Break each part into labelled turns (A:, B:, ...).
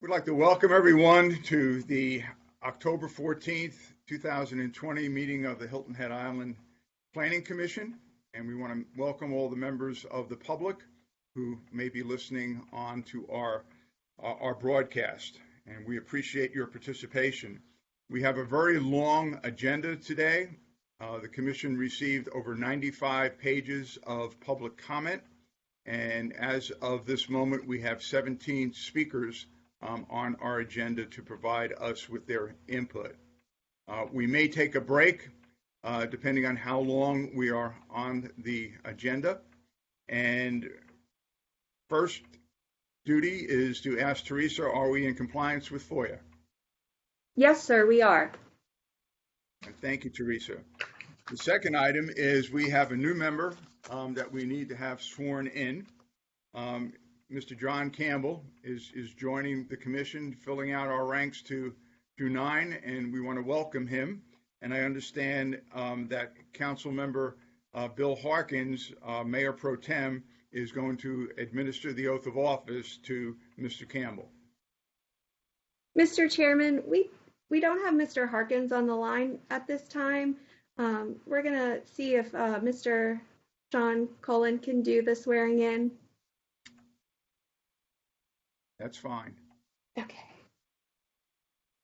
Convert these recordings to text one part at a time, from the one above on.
A: We'd like to welcome everyone to the October 14th, 2020 meeting of the Hilton Head Island Planning Commission. And we want to welcome all the members of the public who may be listening on to our, our our broadcast. And we appreciate your participation. We have a very long agenda today. Uh, The commission received over 95 pages of public comment. And as of this moment, we have 17 speakers um, on our agenda to provide us with their input. Uh, We may take a break, uh, depending on how long we are on the agenda. And first duty is to ask Teresa, are we in compliance with FOIA?
B: Yes, sir, we are.
A: And Thank you, Teresa. The second item is we have a new member um, that we need to have sworn in. Um, Mr. John Campbell is, is joining the commission, filling out our ranks to, to nine, and we want to welcome him. And I understand um, that Councilmember uh, Bill Harkins, uh, Mayor Pro Tem, is going to administer the oath of office to Mr. Campbell.
B: Mr. Chairman, we, we don't have Mr. Harkins on the line at this time. Um, We're going to see if uh, Mr. Sean Cullen can do the swearing in.
A: That's fine.
B: Okay.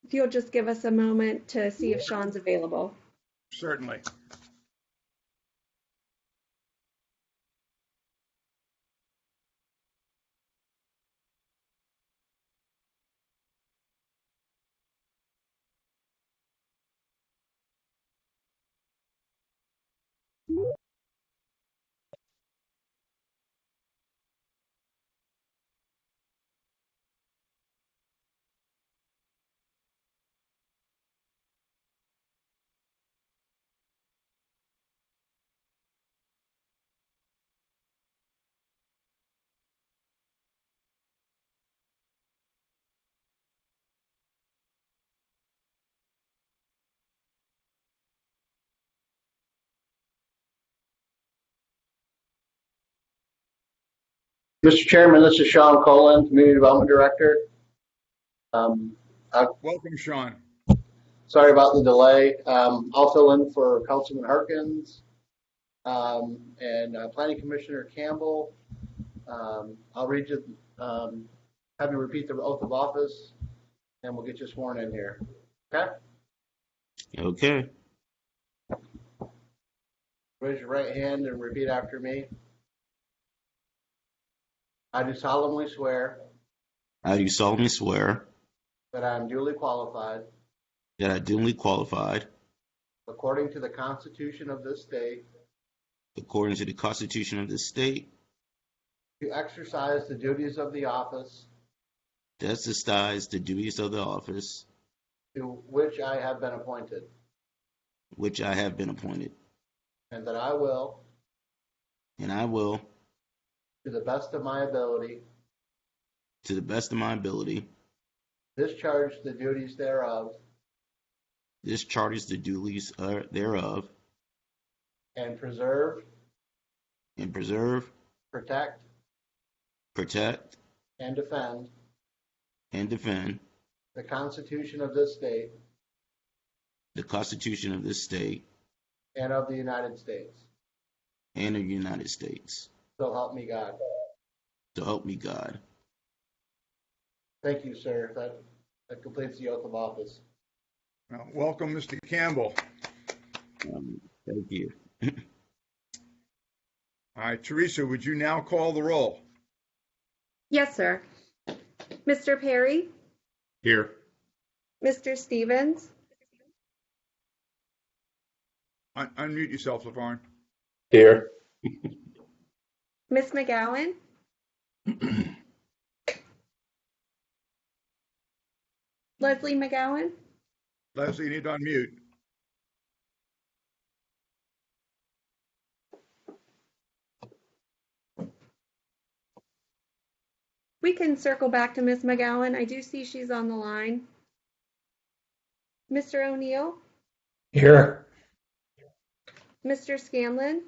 B: If you'll just give us a moment to see if Sean's available.
A: Certainly.
C: Mr. Chairman, this is Sean Colon, Community Development Director. Um,
A: Welcome, Sean.
C: Sorry about the delay. Um, I'll fill in for Councilman Harkins um, and uh, Planning Commissioner Campbell. Um, I'll read you, um, have you repeat the oath of office, and we'll get you sworn in here. Okay?
D: Okay.
C: Raise your right hand and repeat after me. I do solemnly swear
D: I do solemnly swear
C: that I am duly qualified,
D: that I duly qualified,
C: according to the Constitution of this state,
D: according to the Constitution of this state,
C: To exercise the duties of the office
D: to exercise the duties of the office
C: to which I have been appointed,
D: which I have been appointed,
C: and that I will,
D: and I will,
C: to the best of my ability,
D: to the best of my ability,
C: discharge the duties thereof
D: discharge the duties uh, thereof,
C: and preserve,
D: and preserve,
C: protect,
D: protect,
C: and defend
D: and defend
C: the Constitution of this state
D: the Constitution of this state
C: and of the United States.
D: and of the United States.
C: So help me God.
D: So help me God.
C: Thank you, sir. That, that completes the oath of office.
A: Well, Welcome, Mr. Campbell.
D: Um, thank you.
A: All right, Teresa, would you now call the roll?
B: Yes, sir. Mr. Perry,
A: Here.
B: Mr. Stevens,
A: Unmute yourself, LaVarn.
E: Here.
B: Ms. McGowan, Leslie McGowan,
A: Leslie, you need to unmute.
B: We can circle back to Ms. McGowan. I do see she's on the line. Mr. O'Neill,
E: Here.
B: Mr. Scanlon,